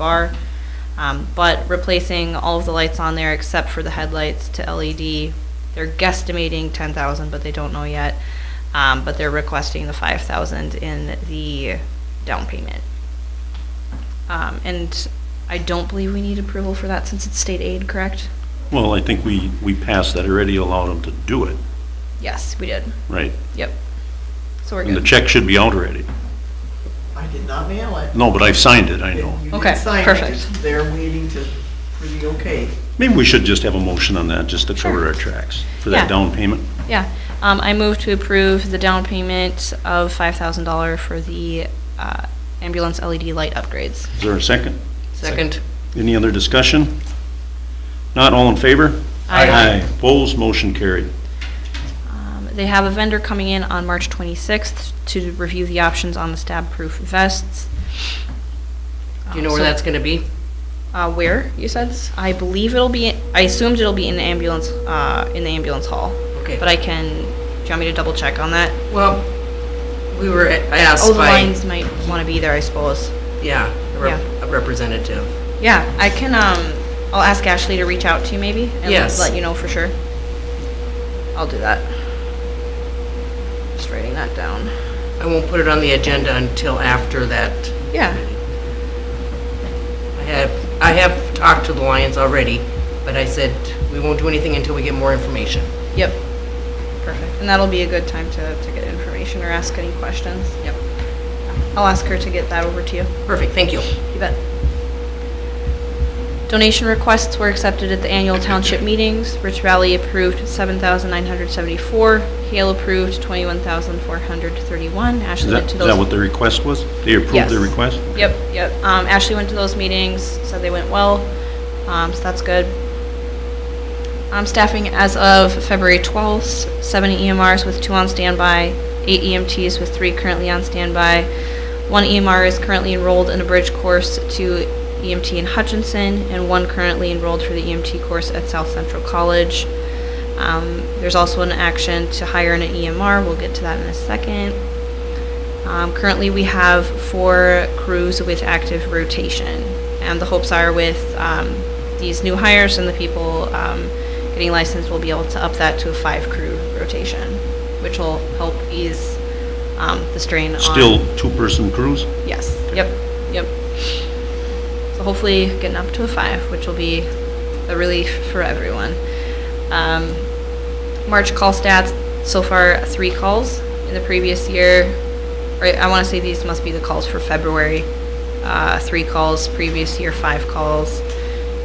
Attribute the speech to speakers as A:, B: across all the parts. A: bar. Um, but replacing all of the lights on there except for the headlights to LED. They're guesstimating ten thousand, but they don't know yet. Um, but they're requesting the five thousand in the down payment. Um, and I don't believe we need approval for that since it's state aid, correct?
B: Well, I think we, we passed that already, allowed them to do it,
A: Yes, we did.
B: right?
A: Yep. So we're
B: And the
A: good.
B: check should be out already.
C: I did not mail it.
B: No, but I've signed it, I
C: You
B: know.
C: didn't
A: Okay,
C: sign it,
A: perfect.
C: it's There waiting to, for the okay.
B: Maybe we should just have a motion on that, just to cover
A: Sure.
B: our tracks for
A: Yeah.
B: that down payment.
A: Yeah, um, I move to approve the down payment of five thousand dollar for the, uh, ambulance LED light upgrades.
B: Is there a second?
A: Second.
B: Any other discussion? Not all in favor?
A: Aye.
B: Opposed, motion carried.
A: Um, They have a vendor coming in on March 26th to review the options on the stab-proof vests.
D: Do you know where
A: Um, so-
D: that's gonna be?
A: Uh, where, you said? I believe it'll be, I assumed it'll be in the ambulance, uh, in the ambulance hall.
D: Okay.
A: But I can, do you want me to double check on that?
D: Well, we were asked
A: Oh,
D: by.
A: the lines might want to be there, I suppose.
D: Yeah, a rep-
A: Yeah.
D: a representative.
A: Yeah, I can, um, I'll ask Ashley to reach out to you maybe?
D: Yes.
A: And let you know for sure. I'll do that. Just writing that down.
D: I won't put it on the agenda until after that.
A: Yeah,
D: I have, I have talked to the Lions already, but I said, we won't do anything until we get more information.
A: Yep. Perfect. And that'll be a good time to, to get information or ask any questions.
D: Yep.
A: I'll ask her to get that over to you.
D: Perfect, thank you.
A: You bet. Donation requests were accepted at the annual township meetings. Rich Valley approved seven thousand nine hundred seventy-four. Hale approved twenty-one thousand four hundred thirty-one.
B: Is
A: Ashley
B: that,
A: went
B: is
A: to
B: that what
A: those.
B: the request was? They approved
A: Yes.
B: the request?
A: Yep, yep. Um, Ashley went to those meetings, said they went well. Um, so that's good. Um, staffing as of February 12th, 70 EMRs with two on standby, eight EMTs with three currently on standby. One EMR is currently enrolled in a bridge course to EMT in Hutchinson, and one currently enrolled for the EMT course at South Central College. Um, there's also an action to hire an EMR. We'll get to that in a second. Um, currently, we have four crews with active rotation, and the hopes are with um, these new hires and the people um, getting licensed, we'll be able to up that to a five crew rotation, which will help ease um, the strain on.
B: Still two-person crews?
A: Yes. Yep. Yep. So hopefully getting up to a five, which will be a relief for everyone. Um, March call stats so far three calls in the previous year. Right, I want to say these must be the calls for February. Uh, three calls previous year, five calls.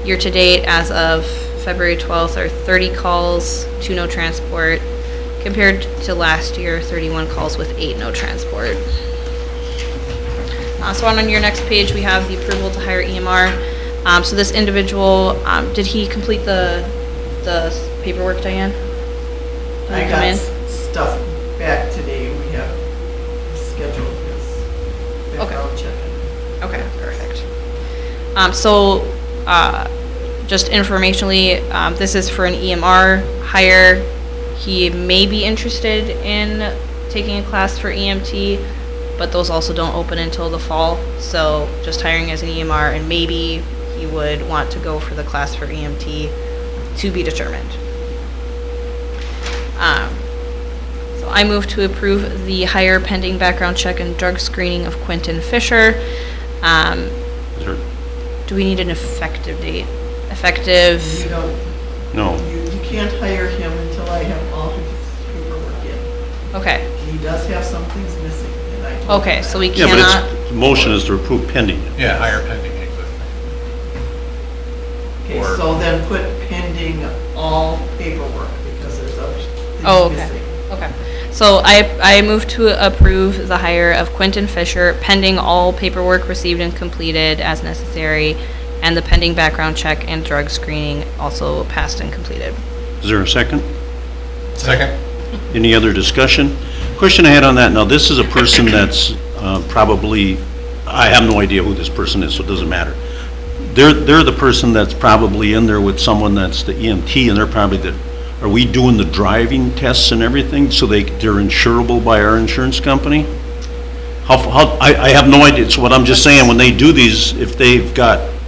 A: Year to date, as of February 12th, are 30 calls, two no transport, compared to last year, 31 calls with eight no transport. Uh, So on your next page, we have the approval to hire EMR. Um, So this individual, um, did he complete the, the paperwork, Diane? Did he
C: I
A: come
C: got
A: in?
C: s- stuff back today, we have scheduled this. Background check.
A: Okay, perfect. Um, so, uh, just informationally, um, this is for an EMR hire. He may be interested in taking a class for EMT, but those also don't open until the fall. So, just hiring as an EMR, and maybe he would want to go for the class for EMT to be determined. Um, so I move to approve the hire pending background check and drug screening of Quentin Fisher. Um,
B: Is there-
A: do we need an effective date? Effective,
C: You don't,
B: No.
C: you, you can't hire him until I have all his paperwork in.
A: okay,
C: He does have some things missing, and I told him
A: okay, so we
B: Yeah, but
A: cannot,
B: it's, the motion is to approve pending.
E: Yeah, higher pending existing.
C: that. Okay, so then put pending all paperwork, because there's other
A: Oh,
C: things
A: okay.
C: missing.
A: okay. So I, I move to approve the hire of Quentin Fisher pending all paperwork received and completed as necessary and the pending background check and drug screening also passed and completed.
B: Is there a second?
E: Second?
B: Any other discussion? Question I had on that, now, this is a person that's uh, probably, I have no idea who this person is, so it doesn't matter. They're, they're the person that's probably in there with someone that's the EMT, and they're probably the, are we doing the driving tests and everything, so they, they're insurable by our insurance company? How, how, I, I have no idea, so what I'm just saying, when they do these, if they've got